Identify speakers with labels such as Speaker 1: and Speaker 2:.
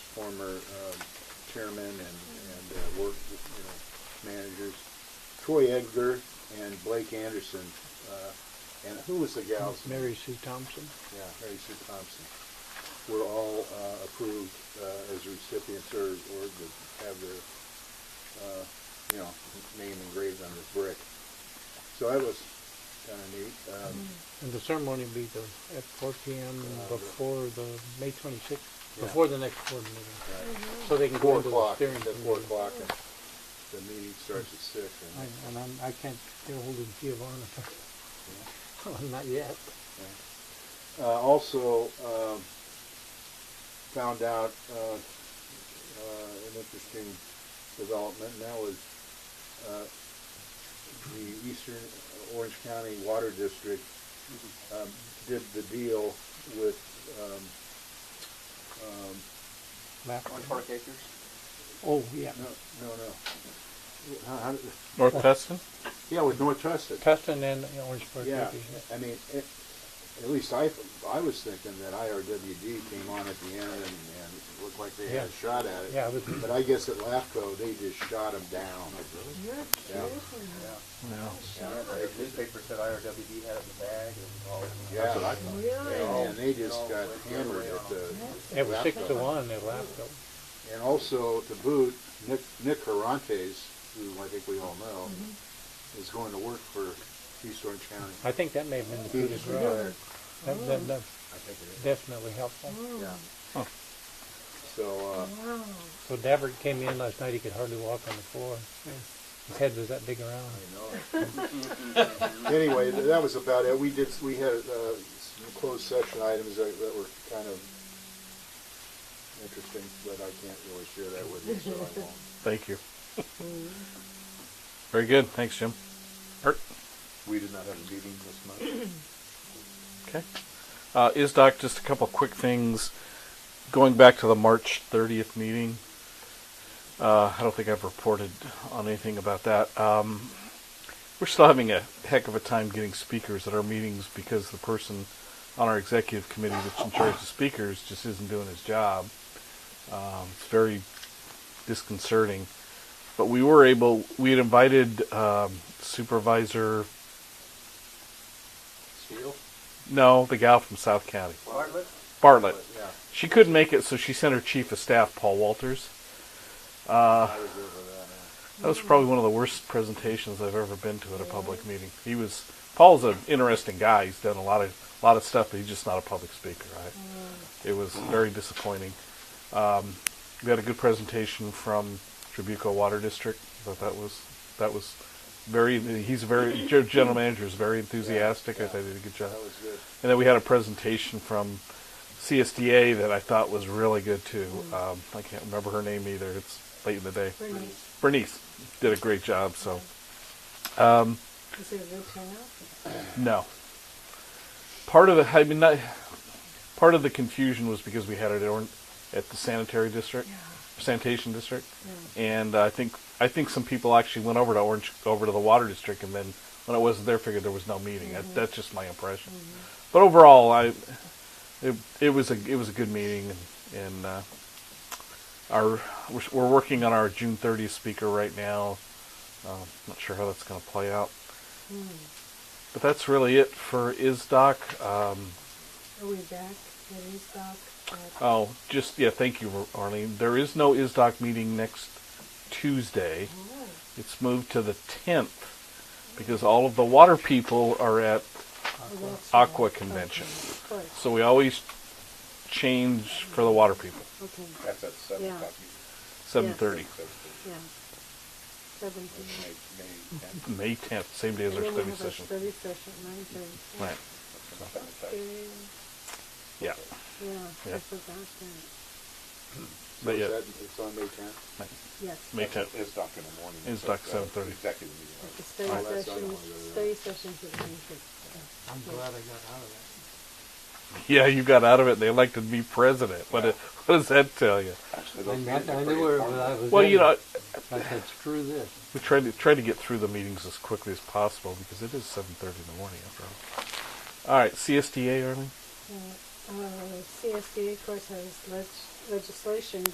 Speaker 1: former um, chairman and, and uh, work, you know, managers, Troy Edgar and Blake Anderson, uh, and who was the gal's name?
Speaker 2: Mary Sue Thompson.
Speaker 1: Yeah, Mary Sue Thompson. Were all uh, approved uh, as recipients or, or to have their, uh, you know, name engraved on the brick. So that was kind of neat. Um,
Speaker 2: And the ceremony will be the, at four P M
Speaker 1: Uh,
Speaker 2: before the, May twenty-sixth,
Speaker 1: Yeah.
Speaker 2: before the next board meeting.
Speaker 1: right.
Speaker 2: So they can go
Speaker 1: uh, Four
Speaker 2: into the
Speaker 1: o'clock,
Speaker 2: steering
Speaker 1: at four
Speaker 2: committee.
Speaker 1: o'clock, and the meeting starts at six.
Speaker 2: I-
Speaker 1: and-
Speaker 2: And I'm, I can't get ahold of Giovanna,
Speaker 1: yeah.
Speaker 2: not yet.
Speaker 1: Uh, also, um, found out, uh, uh, an interesting development, and that was, uh, the Eastern Orange County Water District,
Speaker 2: Mm-hmm.
Speaker 1: um, did the deal with, um, um,
Speaker 2: Lap-
Speaker 3: On Park Acres?
Speaker 2: Oh, yeah.
Speaker 1: no, no, no. How- how did-
Speaker 4: North Tustin?
Speaker 1: Yeah, with North Tustin.
Speaker 2: Tustin and Orange Park.
Speaker 1: Yeah,
Speaker 2: Acres,
Speaker 1: I mean, it, at least I, I was thinking that IRWD came on at the end and, and it looked like they had a
Speaker 2: Yeah.
Speaker 1: shot at it.
Speaker 2: Yeah, it was,
Speaker 1: But I guess at LAFCO, they just shot them down.
Speaker 5: You're
Speaker 1: Yeah.
Speaker 5: kidding.
Speaker 4: No.
Speaker 3: Yeah, the newspaper said IRWD had it in the bag and all.
Speaker 1: Yeah,
Speaker 5: Really?
Speaker 1: and and they just got hammered at the.
Speaker 2: it was six to
Speaker 1: LAFCO.
Speaker 2: one, they laughed though.
Speaker 1: And also to boot, Nick, Nick Carantes, who I think we all know, is going to work for East Orange County.
Speaker 2: I think that may have been the coup de
Speaker 1: He's
Speaker 2: grace.
Speaker 1: retired,
Speaker 2: That, that, that's
Speaker 1: I think it
Speaker 2: definitely helpful.
Speaker 1: is, yeah. So, uh,
Speaker 5: Wow.
Speaker 2: So Davert came in last night, he could hardly walk on the floor. His head was that big around.
Speaker 1: Anyway, th- that was about it. We did, we had uh, some closed session items that that were kind of interesting, but I can't really share that with you, so I won't.
Speaker 4: Thank you. Very good. Thanks, Jim. Art?
Speaker 3: We did not have a meeting this month.
Speaker 4: Okay. Uh, ISDOC, just a couple quick things. Going back to the March 30th meeting, uh, I don't think I've reported on anything about that. Um, we're still having a heck of a time getting speakers at our meetings because the person on our executive committee that's in charge of speakers just isn't doing his job. Um, it's very disconcerting. But we were able, we had invited um, Supervisor,
Speaker 1: Steele?
Speaker 4: no, the gal from South County,
Speaker 3: Bartlett?
Speaker 4: Bartlett.
Speaker 1: Yeah,
Speaker 4: She couldn't make it, so she sent her chief of staff, Paul Walters. Uh,
Speaker 1: I was there for that. yeah.
Speaker 4: That was probably one of the worst presentations I've ever been to at a public meeting. He was Paul's an interesting guy. He's done a lot of lot of stuff, but he's just not a public speaker. Right?
Speaker 1: Mm.
Speaker 4: It was very disappointing. Um, we had a good presentation from Tribuco Water District. I thought that was that was very. He's very your general manager is very enthusiastic. I thought he did a good job.
Speaker 1: That was good.
Speaker 4: And then we had a presentation from CSDA that I thought was really good too. Um, I can't remember her name either. It's late in the day.
Speaker 5: Bernice,
Speaker 4: Bernice did a great job. So
Speaker 5: is it a good turnout?
Speaker 4: no, part of the I mean not, part of the confusion was because we had it on- at the sanitary district, sanitation district, and I think I think some people actually went over to Orange over to the water district, and then when it wasn't there, figured there was no meeting. That, that's just my impression. But overall, I it, it was a it was a good meeting, and, and uh, our we're, we're working on our June 30th speaker right now. Um, not sure how that's going to play out. But that's really it for ISDOC. Um,
Speaker 5: Are we back at East Dock? At-
Speaker 4: oh, just, yeah, thank you, Arlene. There is no ISDOC meeting next Tuesday.
Speaker 5: Oh,
Speaker 4: It's moved to the 10th because all of the water people are at
Speaker 5: well, that's right.
Speaker 4: Aqua Convention.
Speaker 5: Of course,
Speaker 4: So we always change for the water people,
Speaker 5: okay,
Speaker 3: That's at seven
Speaker 5: Yeah.
Speaker 3: o'clock.
Speaker 4: 7.30.
Speaker 5: yeah. Seventeen.
Speaker 4: May 10th, same day as
Speaker 5: And
Speaker 4: our
Speaker 5: then we have
Speaker 4: study
Speaker 5: our
Speaker 4: session.
Speaker 5: study session, nine thirty.
Speaker 4: Right, yeah.
Speaker 5: Yeah,
Speaker 4: Yeah.
Speaker 5: I forgot that,
Speaker 1: So
Speaker 4: But
Speaker 1: is
Speaker 4: yeah.
Speaker 1: that- It's on May tenth?
Speaker 5: yes.
Speaker 4: May 10th.
Speaker 3: It's doc in the morning.
Speaker 4: It's doc
Speaker 3: So, uh,
Speaker 4: 7:30.
Speaker 3: Executive meeting.
Speaker 1: Oh,
Speaker 5: The study
Speaker 1: that's the other
Speaker 5: session,
Speaker 1: one, yeah, yeah.
Speaker 5: study sessions at nine thirty.
Speaker 2: I'm glad I got out of
Speaker 4: Yeah, you got out of it. They elected me president. What,
Speaker 3: Yeah.
Speaker 4: what does that tell you?
Speaker 3: Actually,
Speaker 2: I
Speaker 3: those
Speaker 2: meant-
Speaker 3: meetings are
Speaker 2: I knew
Speaker 3: pretty
Speaker 2: where
Speaker 3: informative.
Speaker 2: I was-
Speaker 4: Well, you know,
Speaker 2: that. I said, screw this.
Speaker 4: We try to try to get through the meetings as quickly as possible because it is seven thirty in the morning after all. All right, CSDA, Arlene.
Speaker 5: Uh, CSDA, of course, has leg- legislation